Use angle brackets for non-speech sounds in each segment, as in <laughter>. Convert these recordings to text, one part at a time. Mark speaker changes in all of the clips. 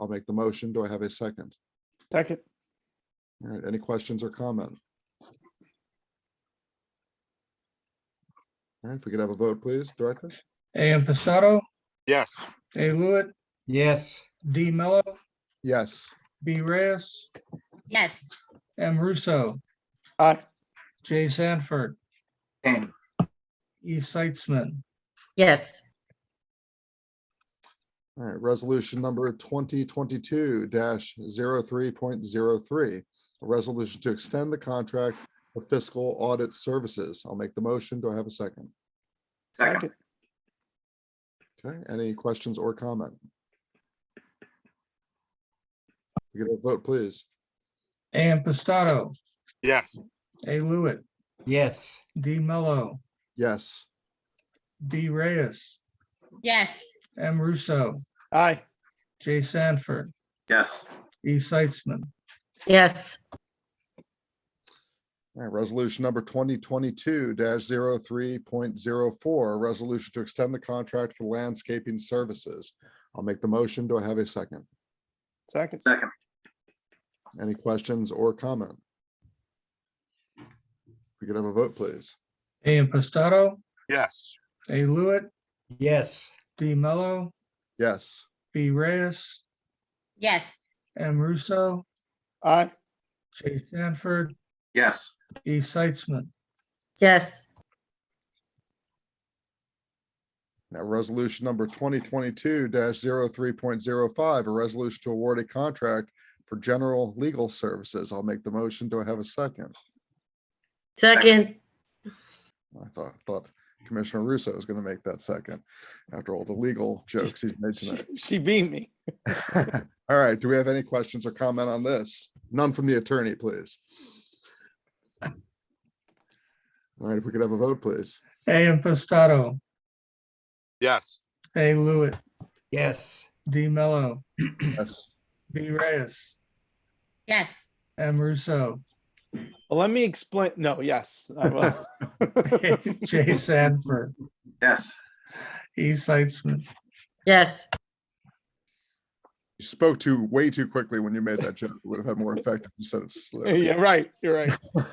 Speaker 1: I'll make the motion. Do I have a second?
Speaker 2: Second.
Speaker 1: All right, any questions or comment? All right, if we could have a vote, please, Director?
Speaker 3: AM Passato,
Speaker 4: Yes.
Speaker 3: A Lewitt,
Speaker 5: yes,
Speaker 3: D Mello,
Speaker 1: Yes,
Speaker 3: B Reyes,
Speaker 6: yes,
Speaker 3: M Russo,
Speaker 2: Aye.
Speaker 3: Jay Sanford, E Seitzman,
Speaker 7: yes,
Speaker 1: all right, resolution number twenty twenty-two 3.03 A resolution to extend the contract for fiscal audit services. I'll make the motion. Do I have a second?
Speaker 2: Second.
Speaker 1: Okay, any questions or comment? If We could have a vote, please.
Speaker 3: AM Passato,
Speaker 4: Yes.
Speaker 3: A Lewitt,
Speaker 5: yes,
Speaker 3: D Mello,
Speaker 1: Yes,
Speaker 3: B Reyes,
Speaker 6: yes,
Speaker 3: M Russo,
Speaker 2: Aye.
Speaker 3: Jay Sanford,
Speaker 8: yes,
Speaker 3: E Seitzman,
Speaker 7: yes,
Speaker 1: All right, resolution number twenty twenty-two 3.04 a resolution to extend the contract for landscaping services. I'll make the motion. Do I have a second?
Speaker 2: Second.
Speaker 8: second,
Speaker 1: Any questions or comment? If We could have a vote, please.
Speaker 3: AM Passato,
Speaker 4: Yes.
Speaker 3: A Lewitt,
Speaker 5: yes,
Speaker 3: D Mello,
Speaker 1: Yes,
Speaker 3: B Reyes,
Speaker 6: yes,
Speaker 3: M Russo,
Speaker 2: Aye.
Speaker 3: Jay Sanford,
Speaker 8: yes,
Speaker 3: E Seitzman,
Speaker 7: yes,
Speaker 1: now resolution number twenty twenty-two 3.05 a resolution to award a contract for general legal services. I'll make the motion. Do I have a second?
Speaker 7: second,
Speaker 1: I thought, thought Commissioner Russo was going to make that second after all the legal jokes he's made tonight.
Speaker 2: She beat me.
Speaker 1: <laughs> All right, do we have any questions or comment on this? None from the attorney, please. All right, if we could have a vote, please.
Speaker 3: AM Passato,
Speaker 4: Yes.
Speaker 3: A Lewitt,
Speaker 5: yes,
Speaker 3: D Mello,
Speaker 1: Yes,
Speaker 3: B Reyes,
Speaker 6: yes,
Speaker 3: M Russo, <laughs>
Speaker 2: Well, let me explain. No, yes. I will. <laughs>
Speaker 3: Jay Sanford,
Speaker 8: yes,
Speaker 3: E Seitzman,
Speaker 7: yes,
Speaker 1: You spoke too, way too quickly when you made that joke. It Would have had more effect if you said it slow.
Speaker 2: Yeah, right. You're right.
Speaker 1: <laughs> All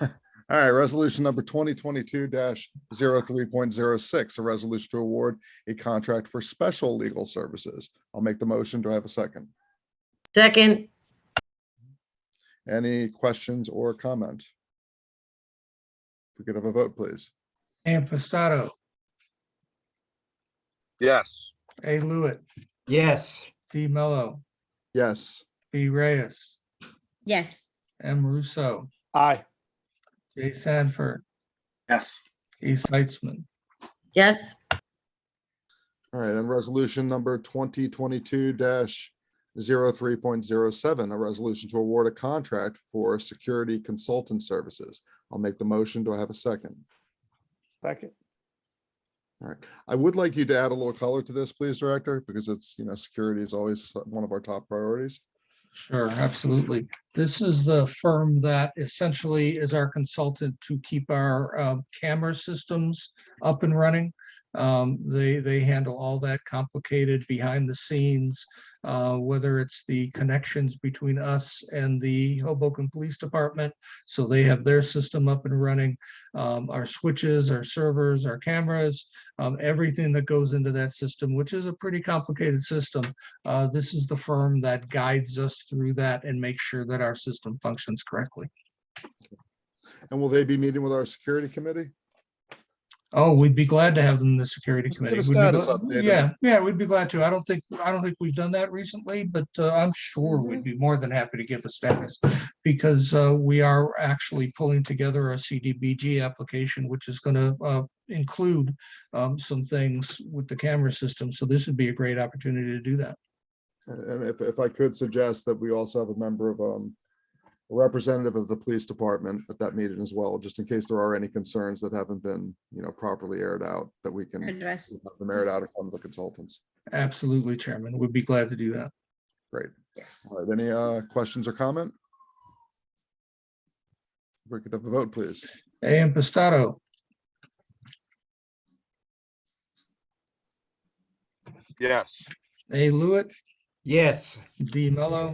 Speaker 1: right, resolution number twenty twenty-two 3.06 a resolution to award a contract for special legal services. I'll make the motion. Do I have a second?
Speaker 7: second,
Speaker 1: Any questions or comment? If we could have a vote, please.
Speaker 3: AM Passato,
Speaker 4: Yes.
Speaker 3: A Lewitt,
Speaker 5: yes,
Speaker 3: D Mello,
Speaker 1: Yes,
Speaker 3: B Reyes,
Speaker 6: yes,
Speaker 3: M Russo,
Speaker 2: Aye.
Speaker 3: Jay Sanford,
Speaker 8: yes,
Speaker 3: E Seitzman,
Speaker 7: yes,
Speaker 1: all right, and resolution number twenty twenty-two 3.07 a resolution to award a contract for security consultant services. I'll make the motion. Do I have a second?
Speaker 2: Second.
Speaker 1: I would like you to add a little color to this, please, Director, because it's, you know, security is always one of our top priorities.
Speaker 3: Sure, absolutely. This is the firm that essentially is our consultant to keep our uh, camera systems up and running. Um, They, they handle all that complicated behind the scenes, uh, whether it's the connections between us and the Hoboken Police Department. So they have their system up and running, um, our switches, our servers, our cameras, um, everything that goes into that system, which is a pretty complicated system. Uh, This is the firm that guides us through that and makes sure that our system functions correctly.
Speaker 1: And will they be meeting with our security committee?
Speaker 3: Oh, we'd be glad to have them in the security
Speaker 1: Let's get a
Speaker 3: committee. We'd be
Speaker 1: status
Speaker 3: gla-
Speaker 1: update on-
Speaker 3: Yeah, yeah, we'd be glad to. I don't think, I don't think we've done that recently, but uh, I'm sure we'd
Speaker 1: Mm-hmm.
Speaker 3: be more than happy to give a status. Because uh, we are actually pulling together a CDBG application, which is going to include um, some things with the camera system. So this would be a great opportunity to do that.
Speaker 1: And- And if, if I could suggest that we also have a member of, um, a representative of the police department at that meeting as well, just in case there are any concerns that haven't been, you know, properly aired out, that we can
Speaker 6: address,
Speaker 1: have them aired out in front of the consultants.
Speaker 3: Absolutely, Chairman. We'd be glad to do that.
Speaker 6: yes,
Speaker 1: All right, any, uh, questions or comment? If We could have a vote, please.
Speaker 3: AM Pistato.
Speaker 4: Yes.
Speaker 3: A Lewitt,
Speaker 5: yes.
Speaker 3: D Mello.